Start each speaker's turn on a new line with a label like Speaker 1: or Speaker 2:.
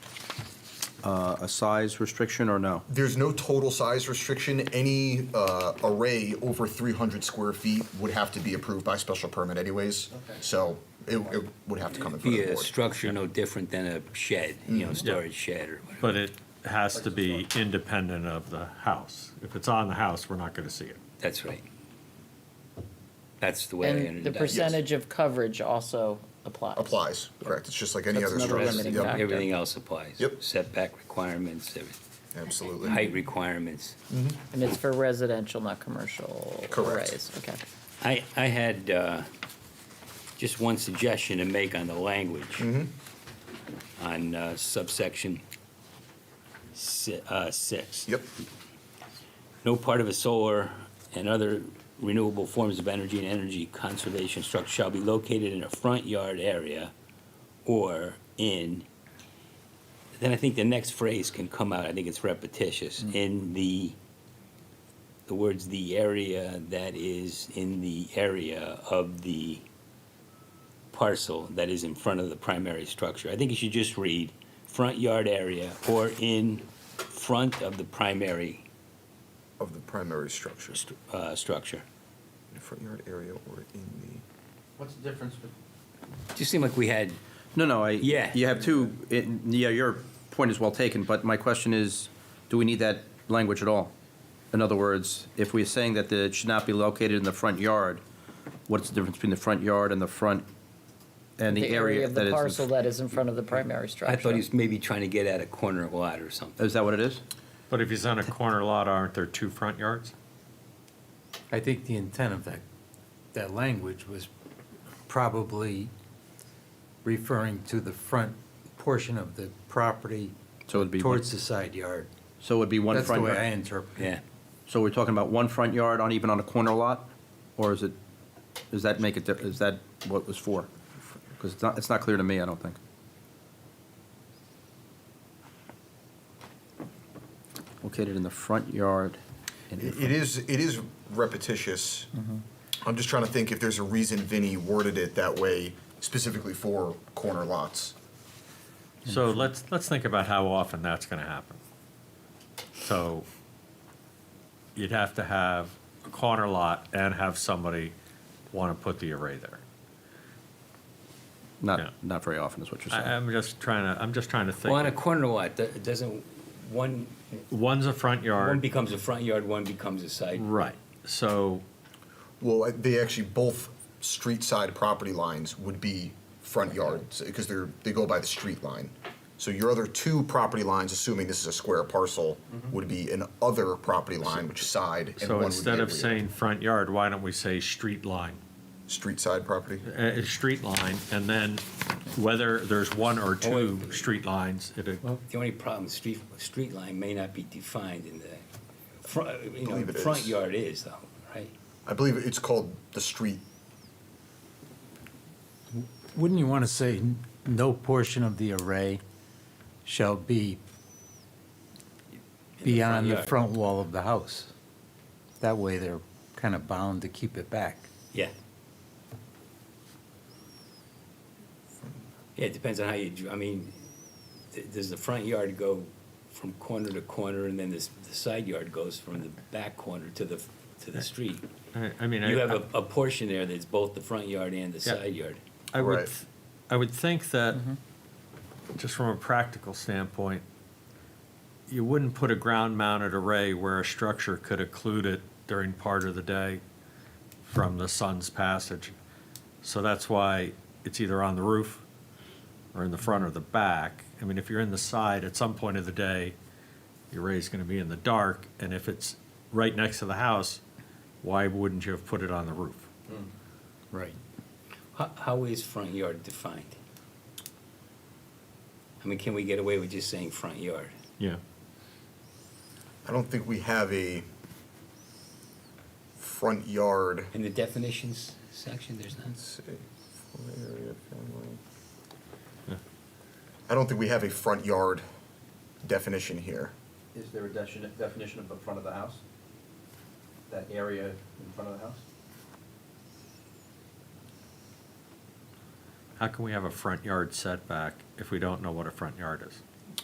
Speaker 1: uh, a size restriction or no?
Speaker 2: There's no total size restriction. Any uh, array over 300 square feet would have to be approved by special permit anyways. So it, it would have to come in front
Speaker 3: Be
Speaker 2: of the
Speaker 3: a
Speaker 2: board.
Speaker 3: structure no different than a shed, you
Speaker 2: Mm-hmm.
Speaker 3: know, storage shed or whatever.
Speaker 4: But it has to be independent of the house. If it's on the house, we're not going to see it.
Speaker 3: That's right. That's the way. I
Speaker 5: And the
Speaker 3: understand it.
Speaker 5: percentage of coverage also applies.
Speaker 2: Applies, correct. It's just like any
Speaker 5: That's
Speaker 2: other
Speaker 5: another
Speaker 2: structure.
Speaker 5: limiting
Speaker 2: Yep,
Speaker 5: factor. Mm-hmm.
Speaker 3: Everything else applies.
Speaker 2: Yep.
Speaker 3: Setback requirements, every-
Speaker 2: Absolutely.
Speaker 3: height requirements.
Speaker 5: And it's for residential, not commercial
Speaker 2: Correct.
Speaker 5: arrays, okay.
Speaker 3: I, I had uh, just one suggestion to make on the language.
Speaker 2: Mm-hmm.
Speaker 3: On uh, subsection si- uh, six.
Speaker 2: Yep,
Speaker 3: No part of a solar and other renewable forms of energy and energy conservation structure shall be located in a front yard area or in, then I think the next phrase can come out, I think it's repetitious, in the, the words, the area that is in the area of the parcel that is in front of the primary structure. I think you should just read front yard area or in front of the primary
Speaker 2: of the primary structure,
Speaker 3: st- uh, structure.
Speaker 2: in front yard area or in
Speaker 6: What's the difference with
Speaker 3: Just seemed like we had,
Speaker 1: No, no, I.
Speaker 3: Yeah.
Speaker 1: You have two, it- yeah, your point is well taken, but my question is, do we need that language at all? In other words, if we're saying that the- it should not be located in the front yard, what's the difference between the front yard and the front, and the area
Speaker 5: of
Speaker 1: that
Speaker 5: the
Speaker 1: is? in
Speaker 5: parcel
Speaker 1: fr-
Speaker 5: that is in front of the primary structure.
Speaker 3: I thought he was maybe trying to get at a corner lot or something.
Speaker 1: Is that what it is?
Speaker 4: But if he's on a corner lot, aren't there two front yards?
Speaker 7: I think the intent of that, that language was probably referring to the front portion of the property
Speaker 1: So it'd be. one-
Speaker 7: towards the side yard.
Speaker 1: So it would be one
Speaker 7: That's the
Speaker 1: front
Speaker 7: way I
Speaker 1: yard?
Speaker 7: interpret it.
Speaker 3: Yeah.
Speaker 1: So we're talking about one front yard on, even on a corner lot? Or is it, does that make it, di- is that what it was for? Because it's not, it's not clear to me, I don't think. Located in the front yard. and
Speaker 2: the. Mm-hmm.
Speaker 1: in front-
Speaker 2: It- It is, it is repetitious. I'm just trying to think if there's a reason Vinny worded it that way specifically for corner lots.
Speaker 4: So let's, let's think about how often that's going to happen. So you'd have to have a corner lot and have somebody want to put the array there. yeah.
Speaker 1: Not, not very often is what you're
Speaker 4: I, um,
Speaker 1: saying.
Speaker 4: I'm just trying to, I'm just trying to think.
Speaker 3: Well, on a corner lot, th- it doesn't, one,
Speaker 4: One's a front
Speaker 3: one
Speaker 4: yard,
Speaker 3: becomes a front yard, one becomes a side.
Speaker 4: right, so,
Speaker 2: Well, I- they actually, both street side property lines would be front yards, because they're, they go by the street line. So your other two property lines, assuming this is a square parcel, would be an other property line, which is side, and one
Speaker 4: Mm-hmm. so
Speaker 2: would be
Speaker 4: instead of
Speaker 2: rear.
Speaker 4: saying front yard, why don't we say street line?
Speaker 2: Street side property?
Speaker 4: uh, a, a street line, and then whether there's one
Speaker 3: Oh,
Speaker 4: or two
Speaker 3: Or-
Speaker 4: street lines, it,
Speaker 3: The only problem, street, street line may not be defined in the, front, you know,
Speaker 2: Believe it
Speaker 3: front
Speaker 2: is.
Speaker 3: yard is though, right?
Speaker 2: I believe it's called the street,
Speaker 7: Wouldn't you want to say, "N- no portion of the array shall be
Speaker 3: front
Speaker 7: beyond the
Speaker 3: yard.
Speaker 7: front wall of the house? That way they're kind of bound to keep it back.
Speaker 3: Yeah. Yeah, it depends on how you, dr- I mean, th- does the front yard go from corner to corner and then this, the side yard goes from the back corner to the, to the street?
Speaker 4: I, I mean,
Speaker 3: You have
Speaker 4: I,
Speaker 3: a, a portion there that's both the front yard and the
Speaker 4: Yeah.
Speaker 3: side yard.
Speaker 4: I would,
Speaker 2: Right.
Speaker 4: th- I would think that, just from a practical standpoint, you wouldn't put a ground-mounted array where a structure could occlude it during part of the day from the sun's passage. So that's why it's either on the roof or in the front or the back. I mean, if you're in the side, at some point of the day, your array's gonna be in the dark, and if it's right next to the house, why wouldn't you have put it on the roof?
Speaker 7: Right.
Speaker 3: How, how is front yard defined? I mean, can we get away with just saying front yard?
Speaker 4: Yeah.
Speaker 2: I don't think we have a front yard.
Speaker 3: In the definitions section, there's none.
Speaker 2: I don't think we have a front yard definition here.
Speaker 1: Is there a definition of the front of the house? That area in front of the house?
Speaker 4: How can we have a front yard setback if we don't know what a front yard is?